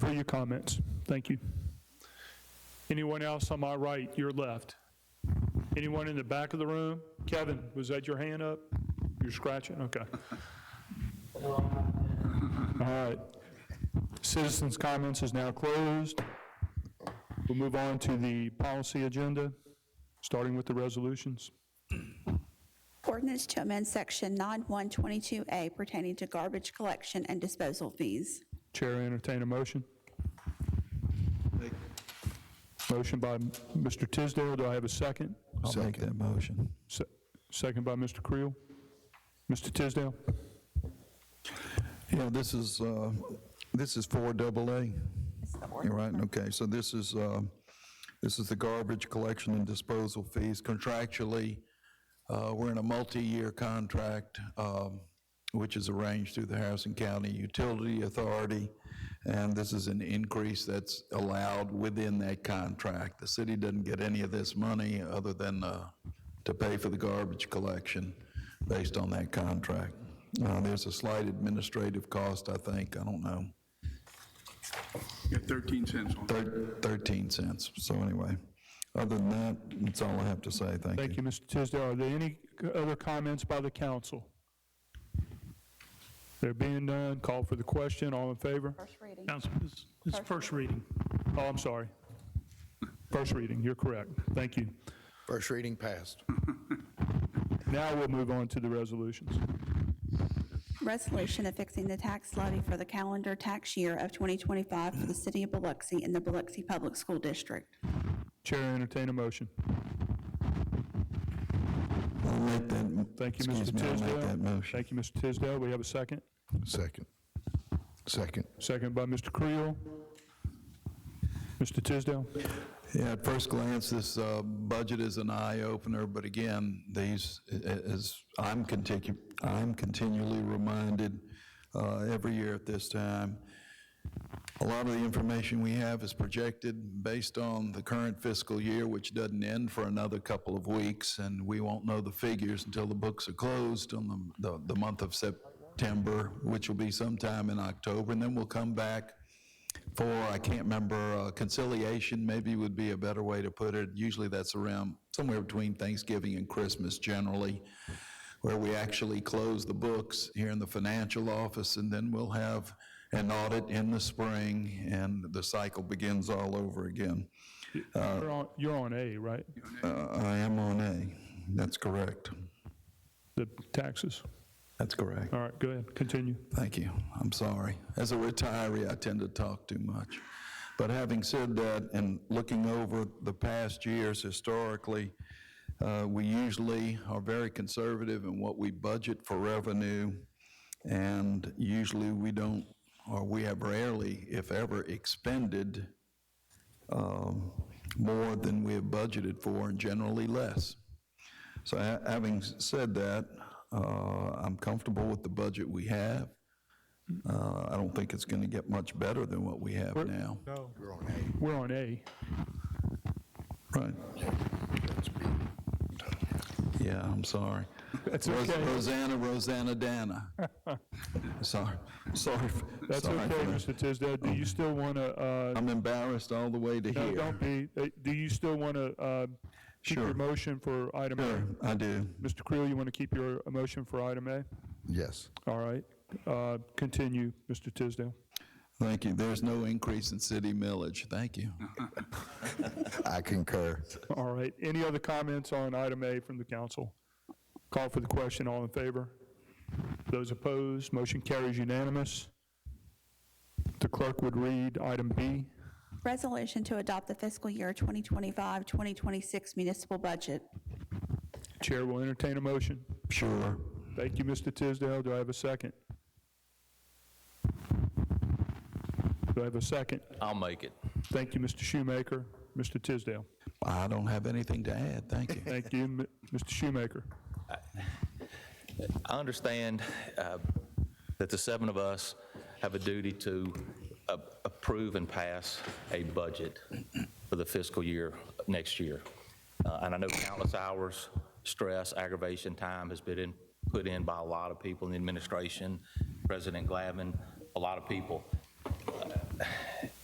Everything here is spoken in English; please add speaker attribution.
Speaker 1: your comments. Thank you. Anyone else on my right, your left? Anyone in the back of the room? Kevin, was that your hand up? You're scratching? Okay. All right. Citizens' comments is now closed. We'll move on to the policy agenda, starting with the resolutions.
Speaker 2: Ordinance to amend Section 9122A pertaining to garbage collection and disposal fees.
Speaker 1: Chair will entertain a motion. Motion by Mr. Tisdale, do I have a second?
Speaker 3: I'll make that motion.
Speaker 1: Se- Second by Mr. Creel. Mr. Tisdale?
Speaker 3: Yeah, this is, uh, this is four double A. You're right, okay, so this is, uh, this is the garbage collection and disposal fees contractually. uh, We're in a multi-year contract, um, which is arranged through the Harrison County Utility Authority, and this is an increase that's allowed within that contract. The city doesn't get any of this money other than uh, to pay for the garbage collection based on that contract. Uh, There's a slight administrative cost, I think, I don't know,
Speaker 4: You got 13 cents on it.
Speaker 3: thir- 13 cents, so anyway. Other than that, that's all I have to say, thank you.
Speaker 1: Thank you, Mr. Tisdale. Are there any c- other comments by the council? There being none, call for the question. All in favor?
Speaker 2: First reading.
Speaker 5: Council, it's- it's first reading.
Speaker 1: Oh, I'm sorry. First reading, you're correct. Thank you.
Speaker 6: First reading passed.
Speaker 1: Now we'll move on to the resolutions.
Speaker 2: Resolution affixing the tax levy for the calendar tax year of 2025 for the city of Biloxi and the Biloxi Public School District.
Speaker 1: Chair will entertain a motion.
Speaker 3: I'll make that.
Speaker 1: Thank you,
Speaker 3: excuse
Speaker 1: Mr.
Speaker 3: me, I'll
Speaker 1: Tisdale.
Speaker 3: make that motion.
Speaker 1: Thank you, Mr. Tisdale. We have a second.
Speaker 6: Second. Second.
Speaker 1: Second by Mr. Creel. Mr. Tisdale?
Speaker 3: Yeah, at first glance, this uh, budget is an eye-opener, but again, these, a- a- as I'm continu, I'm continually reminded uh, every year at this time, a lot of the information we have is projected based on the current fiscal year, which doesn't end for another couple of weeks, and we won't know the figures until the books are closed on the- the, the month of September, which will be sometime in October, and then we'll come back for, I can't remember, uh, conciliation maybe would be a better way to put it. Usually that's around somewhere between Thanksgiving and Christmas generally, where we actually close the books here in the financial office, and then we'll have an audit in the spring, and the cycle begins all over again.
Speaker 1: You're on- You're on A, right?
Speaker 3: Uh, I am on A. That's correct.
Speaker 1: The taxes.
Speaker 3: That's correct.
Speaker 1: All right, go ahead, continue.
Speaker 3: Thank you. I'm sorry. As a retiree, I tend to talk too much. But having said that, and looking over the past years historically, uh, we usually are very conservative in what we budget for revenue, and usually we don't, or we have rarely, if ever, expended um, more than we have budgeted for, and generally less. So ha- having s- said that, uh, I'm comfortable with the budget we have. Uh, I don't think it's going to get much better than what we have now.
Speaker 1: We're on A.
Speaker 3: Right. Yeah, I'm sorry.
Speaker 1: That's
Speaker 3: Ros-
Speaker 1: okay.
Speaker 3: Rosanna, Rosanna Dana. Sorry, sorry. f-
Speaker 1: That's
Speaker 3: sorry for
Speaker 1: okay,
Speaker 3: that.
Speaker 1: Mr. Tisdale. Do you still want to,
Speaker 3: I'm embarrassed all the way to
Speaker 1: no,
Speaker 3: here.
Speaker 1: don't be, Uh, do you still want to keep your
Speaker 3: Sure.
Speaker 1: motion for item A?
Speaker 3: Sure, I do.
Speaker 1: Mr. Creel, you want to keep your motion for item A?
Speaker 6: Yes.
Speaker 1: All right, Uh, continue, Mr. Tisdale.
Speaker 3: Thank you. There's no increase in city millage. Thank you.
Speaker 6: I concur.
Speaker 1: All right, any other comments on item A from the council? Call for the question, all in favor? Those opposed, motion carries unanimous. The clerk would read item B.
Speaker 2: Resolution to adopt the fiscal year 2025-2026 municipal budget.
Speaker 1: Chair will entertain a motion.
Speaker 3: Sure.
Speaker 1: Thank you, Mr. Tisdale. Do I have a second? Do I have a second?
Speaker 7: I'll make it.
Speaker 1: Thank you, Mr. Shoemaker. Mr. Tisdale.
Speaker 3: I don't have anything to add. Thank you.
Speaker 1: Thank you, M- Mr. Shoemaker.
Speaker 7: I understand uh, that the seven of us have a duty to a- approve and pass a budget for the fiscal year next year. Uh, And I know countless hours, stress, aggravation, time has been in- put in by a lot of people in the administration, President Glavin, a lot of people.